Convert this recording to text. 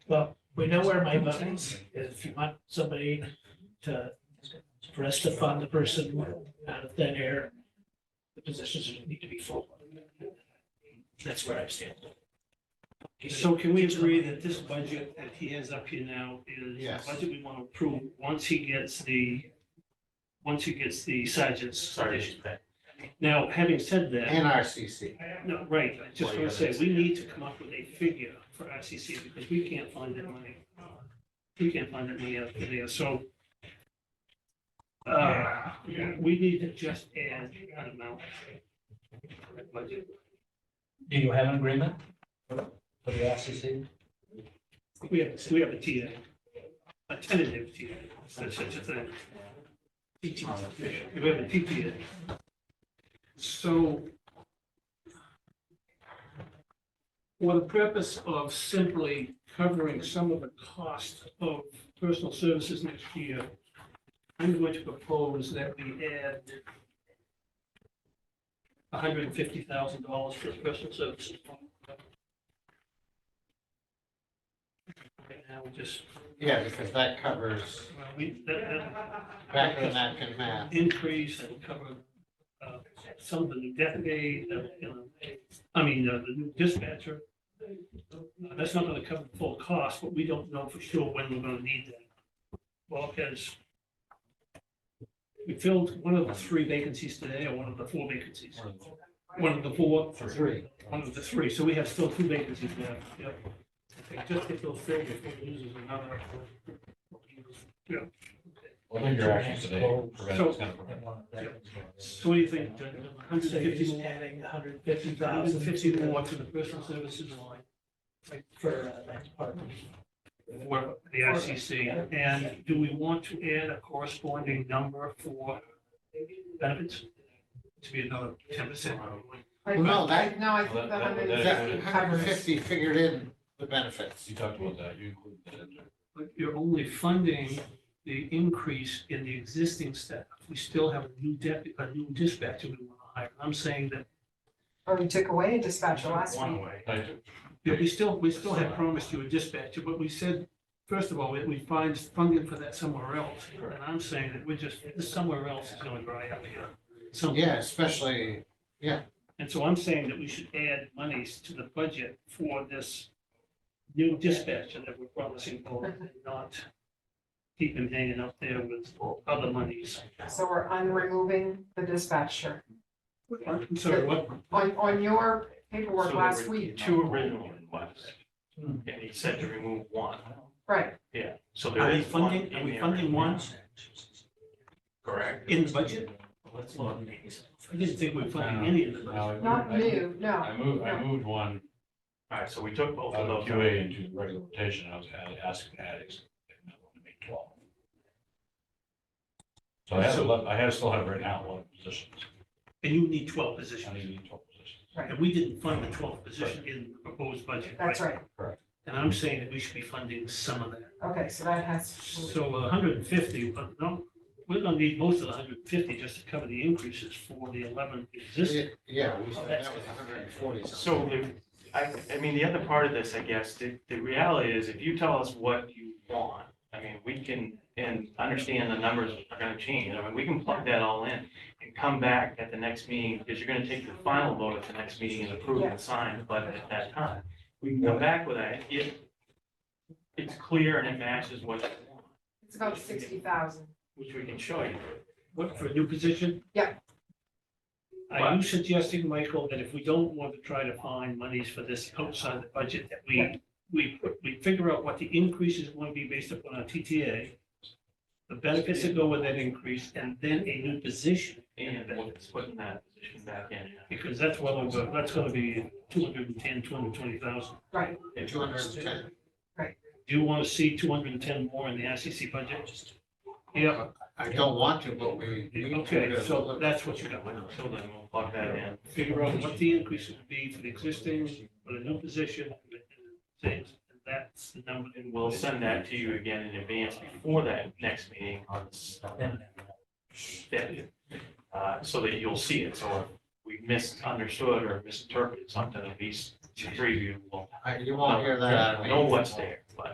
Well, we know where my money is. If you want somebody to, for us to fund the person out of thin air, the positions need to be full. That's where I stand. So can we agree that this budget that he has up here now is Yes. the budget we want to approve once he gets the, once he gets the sergeant's Sorry. addition? Now, having said that, NRCC. no, right, I just want to say, we need to come up with a figure for RCC because we can't find that money. We can't find that money out there, so uh, we need to just add an amount. to that budget. Do you have an agreement for the RCC? We have, we have a TA, a tentative TA, such, such a thing. TTA, we have a TTA. So for the purpose of simply covering some of the cost of personal services next year, I'm going to propose that we add hundred and fifty thousand dollars for personal services. Right now, we just Yeah, because that covers Well, we, that, back of the napkin math. that increase that would cover, uh, some of the new deputy, uh, you know, I mean, uh, the new dispatcher. Uh, That's not gonna cover the full cost, but we don't know for sure when we're gonna need that. Well, because we filled one of the three vacancies today, or one of the four vacancies, one of the four, Three. one of the three, so we have still two vacancies left, yep. Okay, Just get those filled before we lose another. What are your actions today? So- prevent- it's gonna prevent- So what do you think, hundred So you're fifty just more? adding a hundred fifty thousand thousand fifty more to the personal services line for uh, that department. for the ICC. And do we want to add a corresponding number for benefits? To be another ten percent. Well, no, that, No, I Well, think the that- that- that- hundred and that hundred fifty and covers. fifty figured in the benefits. You talked about that, you included that in there. But you're only funding the increase in the existing staff. We still have a new deputy, a new dispatcher we want to hire. I'm saying that Or we took away a dispatcher last One week. way. I do. Yeah, we still, we still had promised you a dispatcher, but we said, first of all, we, we find funding for that somewhere else. And I'm saying that we're just, this somewhere else is going dry up here. So, Yeah, especially, and so I'm saying that we should add monies to the budget for this new dispatcher that we're promising for, and not keep him hanging up there with other monies. So we're unremoving the dispatcher. I'm sorry, what? On, on your paperwork So last there were week, Two original ones. Hmm. And he said to remove one, right, yeah, so there Are we is one funding, are in we there funding right one now. Correct. in the budget? Let's look at these. I didn't think we were funding any of the Now, budget. I moved- not I moved- new, no. I moved, I moved one All right, so we took both out of of those. QA into regular rotation, I was ad- asking addicts. I want to make twelve. So I have, ele- I have, still have right now eleven positions, And you need twelve I positions. need twelve positions. And we didn't fund the twelfth position in the proposed budget. That's right. And I'm saying that we should be funding some of that. Okay, so that has, So hundred and fifty, but no, we're gonna need most of the hundred and fifty just to cover the increases for the eleven existing. it- yeah, we said that was hundred and forty So something. if, I, I mean, the other part of this, I guess, the, the reality is if you tell us what you want, I mean, we can, and understand the numbers are gonna change. I mean, we can plug that all in and come back at the next meeting, because you're gonna take the final vote at the next meeting and approve and sign the budget at that time. We can come back with that if it's clear and it matches what you want, it's about sixty thousand. which we can show you. What, for a new position? Yeah. Are you suggesting, Michael, that if we don't want to try to find monies for this outside the budget, that we, we, put- we figure out what the increase is going to be based upon our TTA, the benefits that go with that increase, and then a new position? And what's putting that position back in. Because that's what, I'm go- that's gonna be two hundred and ten, two hundred and twenty thousand. Right, Two hundred and ten. Do you wanna see two hundred and ten more in the ICC budget? Yeah, I don't want to, but we. need to okay, to so look- that's what you got, So then we'll plug that in. figure out what the increase would be for the existing, for the new position, and things, and that's the number. And we'll send that to you again in advance before that next meeting on s- that, uh, so that you'll see it. So if we misunderstood or misinterpreted something, at least to preview, we'll I- You won't hear that out of me. know what's there.